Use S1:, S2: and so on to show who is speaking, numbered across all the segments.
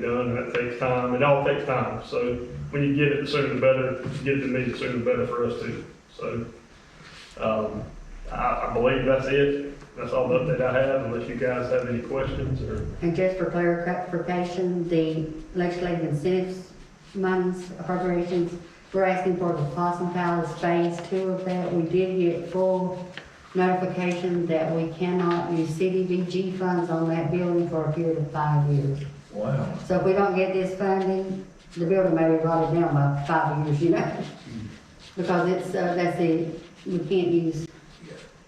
S1: done, and that takes time, it all takes time, so when you get it, the sooner the better, If you get it to me, the sooner the better for us too, so. Um, I, I believe that's it, that's all the update I have, unless you guys have any questions, or,
S2: And just for clarification, the legislative incentives funds appropriations, we're asking for the Possum Palace Phase Two of that. We did get full notification that we cannot use CDBG funds on that building for a period of five years.
S3: Wow.
S2: So if we don't get this funding, the building may be rotted down by five years, you know? Because it's, uh, that's the, we can't use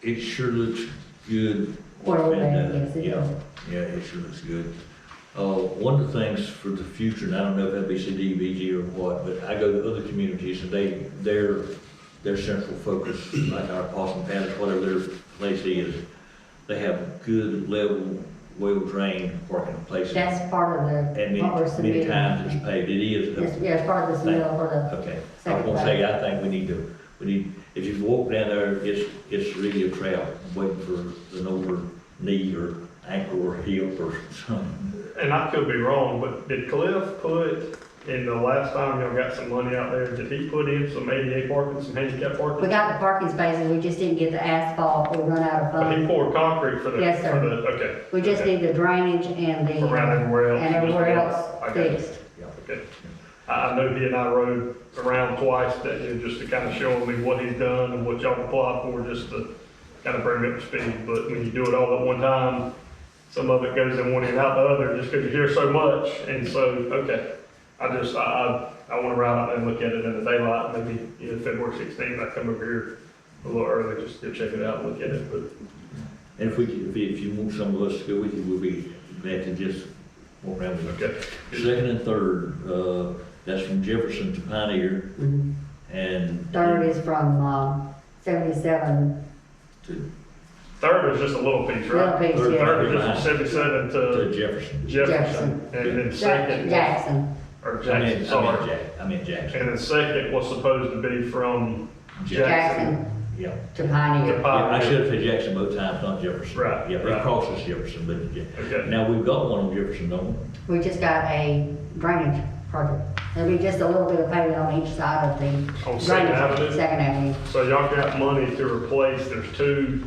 S3: It sure looks good.
S2: oil
S3: And, uh,
S2: that, Oh, yes, it
S3: Yeah,
S2: does.
S3: yeah, it sure looks good. Uh, one of the things for the future, and I don't know if that'd be CDBG or what, but I go to other communities and they, their, their central focus, like our Possum Palace, whatever their place is, they have good level, well-drained parking places.
S2: That's part of
S3: And
S2: the, what we're
S3: many, many
S2: submitting.
S3: times it's paved, it is. a-
S2: Yes, yeah, it's part of this mill for the
S3: Okay, I was gonna say, I think we need to, we need, if you walk down there, it's, it's really a trail, waiting for an over knee or ankle or hip or something.
S1: and I could be wrong, but did Cliff put, in the last time y'all got some money out there, did he put in some ADA parking, some handicap
S2: We
S1: parking?
S2: got the parking spaces, we just didn't get the asphalt, we run out of
S1: But he
S2: funds.
S1: poured concrete for the, for
S2: Yes, sir.
S1: the, okay.
S2: We just
S1: okay.
S2: need the drainage and the.
S1: Around everywhere else.
S2: And everywhere else
S1: I got it.
S2: fixed.
S1: Okay. I, I know he and I rode around twice, that, you know, just to kind of show me what he's done and what y'all applied for, just to kind of bring me up to speed. But when you do it all at one time, some of it goes in one end out the other, just because you hear so much. And so, okay, I just, I, I, I want to ride out there and look at it in the daylight, maybe, you know, February sixteenth, I come over here a little early, just to check it out and look at it, but
S3: And if we, could- if, you- if you want some of us to go with you, we'll be glad to just walk around with
S1: Okay.
S3: you. Second and third, uh, that's from Jefferson to Pioneer
S2: Mhm.
S3: and.
S2: Third is from, um, seventy-seven,
S3: To
S1: Third is just a little piece,
S2: Little
S1: right?
S2: Piece,
S3: Third,
S2: yeah.
S1: Third is just seventy-seven
S3: to
S1: to
S3: Jefferson.
S1: Jefferson, and then second.
S2: Jackson.
S1: Or
S3: I meant,
S1: Jackson,
S3: I meant
S1: sorry.
S3: Jack, I meant Jackson.
S1: And the second was supposed to be from Jackson.
S2: Jackson
S3: Yeah.
S2: to
S1: to
S2: Pioneer.
S3: Yeah, I
S1: Pioneer.
S3: should have said Jackson both times, not Jefferson.
S1: Right,
S3: Yeah,
S1: right.
S3: it crosses Jefferson, but, yeah.
S1: Okay.
S3: Now, we've got one on Jefferson, don't we?
S2: We just got a drainage project. There'll be just a little bit of pavement on each side of the.
S1: On Second
S2: drainage,
S1: Avenue?
S2: Second Avenue.
S1: So y'all got money to replace, there's two,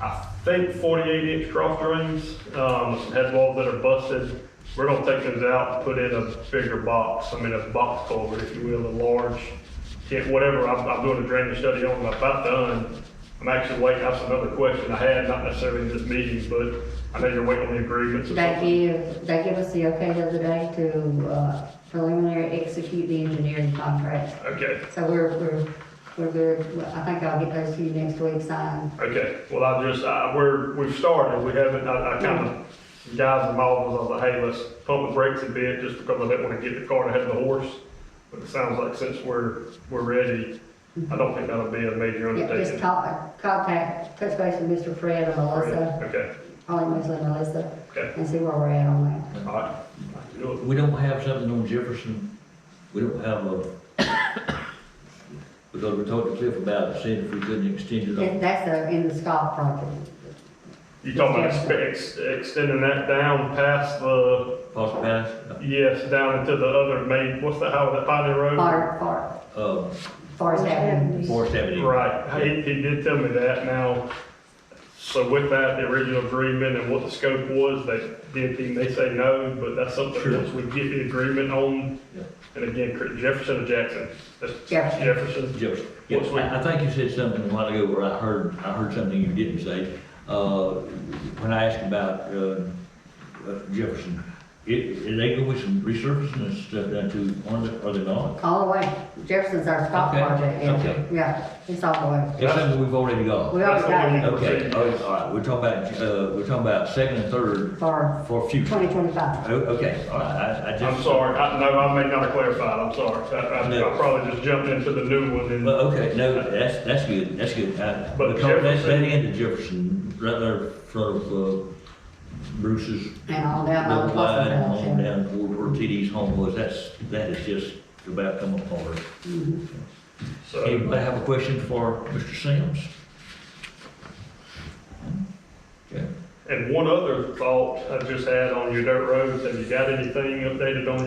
S1: I think forty-eight inch cross drains, um, some head walls that are busted. We're gonna take those out and put in a bigger box, I mean, a box culvert, if you will, a large, yeah, whatever, I'm, I'm doing a drainage study on, it. I'm about done. I'm actually waiting, that's another question I had, not necessarily in this meeting, but I know you're waiting on the agreements or
S2: They
S1: something.
S2: give, they give us the okay the other day to, uh, preliminary execute the engineering contract.
S1: Okay.
S2: So we're, we're, we're good, Well, I think I'll get those to you next week signed.
S1: Okay, well, I just, I, we're, we've started, we haven't, I, I kind of, guys involved was, I was like, hey, let's pump the brakes a bit, just because I didn't want to get the cart ahead of the horse. But it sounds like since we're, we're ready, I don't think that'll be a major
S2: Yeah, just
S1: undertaking.
S2: talk, contact, touch base with Mr. Fred and Melissa,
S1: Okay,
S2: probably Mr. and Melissa,
S1: okay,
S2: and see where we're at on that.
S1: all right. I can do it.
S3: We don't have something on Jefferson, we don't have a, because we talked to Cliff about it, seeing if we couldn't extend it
S2: That-
S3: on.
S2: That's the, in the Scott project.
S1: You talking about expe- ex- extending that down past the,
S3: Possible Pass,
S1: yes, down into the other main, what's the, how, that Pioneer Road?
S2: Far, far,
S3: uh,
S2: Forest Avenue.
S3: Forest Avenue.
S1: Right, he, he did tell me that now. So with that, the original agreement and what the scope was, they did, think they say no, but that's something
S3: Sure.
S1: else we get the agreement on.
S3: Yeah.
S1: And again, Cr- Jefferson or Jackson? That's
S2: Jefferson.
S1: Jefferson.
S3: Jefferson. Yeah, I, I think you said something a while ago where I heard, I heard something you didn't say. Uh, when I asked about, uh, uh, Jefferson, it, it- they go with some resurfacing and stuff down to, are they, are they not?
S2: All the way, Jefferson's our Scott
S3: Okay,
S2: project,
S3: okay.
S2: yeah, yeah, it's all the way.
S3: It's something we've already got.
S2: We already got
S3: Okay, Oh, all right, all right, we're talking about, uh, we're talking about second and third
S2: it for
S3: for future.
S2: twenty twenty-five.
S3: O- Okay, all right, I, I just.
S1: I'm sorry, I, no, I may not have clarified, I'm sorry. I, I- I
S3: No.
S1: probably just jumped into the new one and,
S3: Well, okay, no, that's, that's good, that's good. I-
S1: But
S3: Because that's, that
S1: Jefferson-
S3: end of Jefferson, right there in front of uh, Bruce's.
S2: And all down by the
S3: Little line,
S2: Boston College,
S3: On
S2: yeah.
S3: down toward where TD's home was, that's, that is just about come apart.
S1: so.
S3: Anybody have a question for Mr. Sims? Okay.
S1: And one other thought I just had on your dirt roads, have you got anything updated on